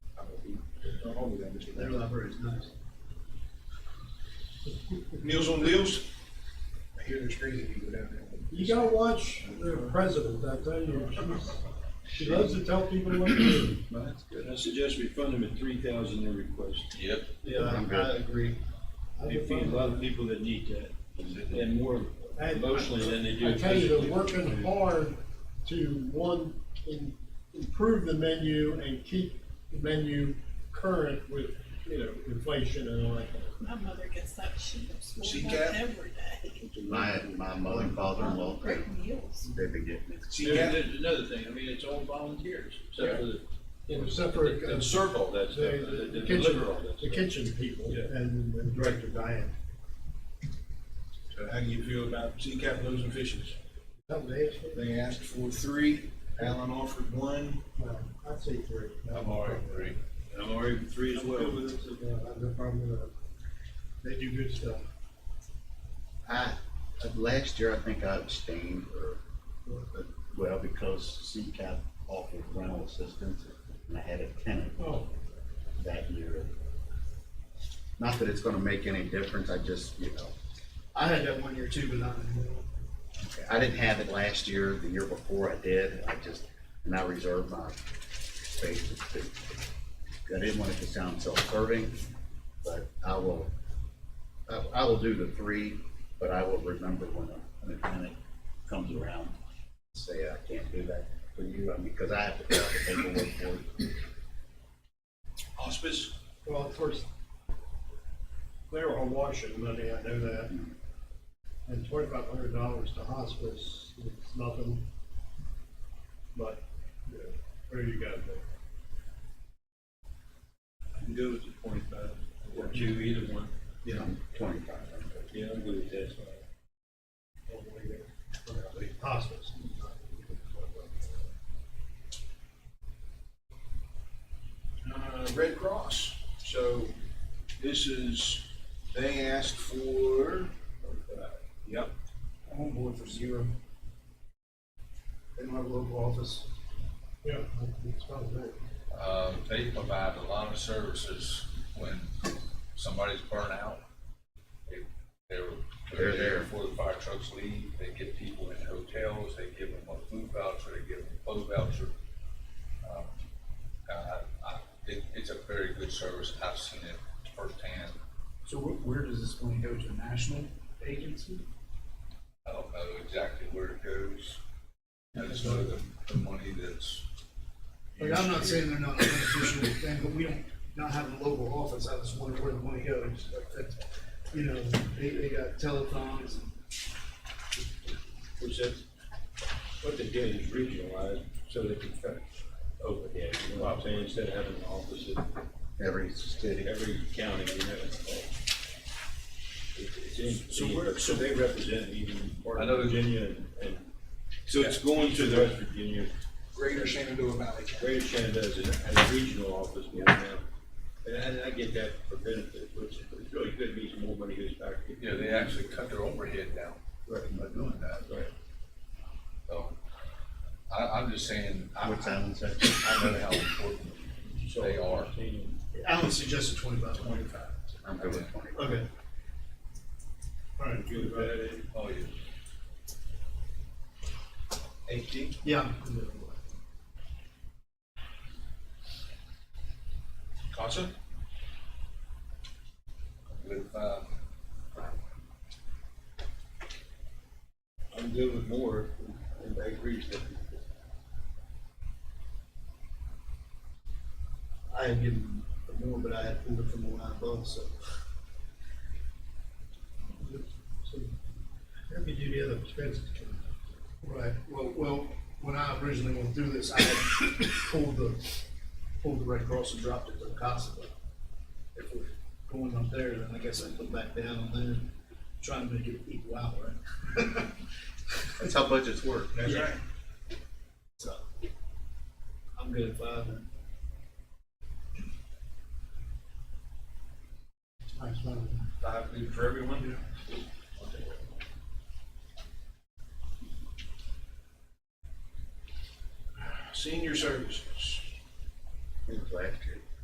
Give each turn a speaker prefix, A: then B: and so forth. A: only damage to
B: Their
A: that.
B: library is nice.
A: Meals on Wheels, I hear there's crazy people down there.
C: You gotta watch the president, I tell you, she's, she loves to tell people what to do.
A: That's good.
D: I suggest we fund them at three thousand every request.
E: Yep.
B: Yeah, I I agree.
C: I
D: They feed a lot of people that need that, and more emotionally than they do.
C: I tell you,
D: physically.
C: they're working hard to, one, im- improve the menu and keep the menu current with, you know, inflation and all that.
F: My mother gets that shit from
A: She
F: school
A: got-
F: every day.
G: My, my mother and father-in-law,
F: Great meals.
G: they've been getting it.
A: See, Cap,
D: There- There's another thing, I mean, it's all volunteers, except for the,
C: Except for
D: the
C: uh,
D: the circle that's,
C: the,
D: the
C: the
D: the
C: kitchen,
D: deliver all that
C: the
D: stuff.
C: kitchen people
D: Yeah.
C: and and Director Diane.
A: so how do you feel about sea cap loaves and fishes?
C: That was it.
A: They asked for three, Alan offered one.
C: No, I'd say three.
E: agree.
D: I'm already with three as
C: I'm good
D: well.
C: with it, so, yeah, I have no problem with that. They do good stuff.
G: I, uh, last year, I think I abstained, or, uh, well, because CCAP offered rental assistance, and I had a tenant
C: Oh,
G: that year. Not that it's gonna make any difference, I just, you know,
B: I had that one year too, but not anymore.
G: I didn't have it last year, the year before I did, I just, and I reserved my space. to- I didn't want it to sound self-serving, but I will, I, I will do the three, but I will remember when a, when a tenant comes around, say, I can't do that for you, I mean, because I have to fill out the paperwork for it.
A: Hospice,
C: well, of course, they were all washing money, I know that. And twenty-five hundred dollars to hospice, it's nothing. But, you know, what do you got there?
D: I'm good with the
A: uh,
D: twenty-five, or two, either one,
G: Yeah. Twenty-five hundred.
D: yeah, I'm good with that.
C: All the way there. Well, the Hospice.
A: uh, Red Cross. So this is, they asked for, uh, yep.
B: I'm on board for zero. They don't have a local office.
C: Yeah, it's fine, right?
E: Um, they provide a lot of services when somebody's burnt out. They, they're,
G: They're there.
E: Before the fire trucks leave, they get people in hotels, they give them a food voucher, they give them a clothes voucher. Um, Uh, I, it, it's a very good service, I've seen it firsthand,
B: So wh- where does this money go to? National agency?
E: I don't know exactly where it goes. I just know the, the money that's.
B: Like, I'm not saying they're not a beneficial thing, but we don't, not having a local office, I just wonder where the money goes. Like, that's, you know, they, they got telecoms and
D: Which is, what they did is regionalized, so they can kind of overhead, you know what I'm saying, instead of having an office at
G: Every city.
D: every county, you have it all. It- it's in-
A: So where-
D: So they represent even part
E: I know
D: of
E: that-
D: Virginia and- and.
E: So it's going to
D: West
E: the
D: Virginia,
A: Greater Shenandoah Valley.
D: Greater Shenandoah has a, has a regional office more now. And I, and I get that for benefit, which is really good, means more money goes back. to-
E: Yeah, they actually cut their overhead down by doing that.
D: Right.
E: So, I, I'm just saying, I,
G: What's
E: I
G: Alan say?
E: I know how important
D: So-
E: they are.
B: Alan suggested twenty-five, twenty-five.
G: I'm good with twenty.
B: Okay.
C: All right,
D: Good, bad,
E: Oh, yeah.
A: Eighteen.
B: Yeah.
A: CASA?
E: With, uh,
D: I'm good with more, and I agree with that.
B: I had given more, but I had pulled it from the line above, so.
C: So, Let me do the other expenses.
B: Right, well, well, when I originally went through this, I had pulled the, pulled the Red Cross and dropped it to CASA. but If we're going up there, then I guess I put back down on there, and try and make it equal out, right?
G: That's how budgets work.
A: That's
B: Yeah.
A: right.
B: So, I'm good at five then.
C: That's fine.
A: Five good for everyone? Senior services.
G: Last year.